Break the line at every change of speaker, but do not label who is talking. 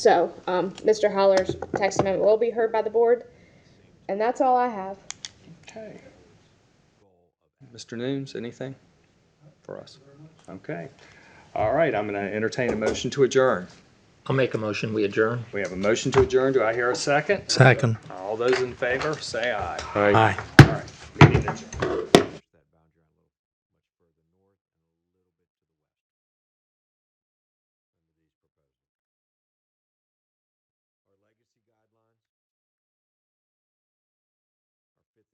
So, um, Mr. Holler's text amendment will be heard by the board, and that's all I have.
Okay,
Mr. Nooms, anything for us?
okay. All right, I'm going to entertain a motion to adjourn.
I'll make a motion, we adjourn.
We have a motion to adjourn. Do I hear a second?
Second.
All those in favor, say aye.
Aye.
All right, meeting adjourned.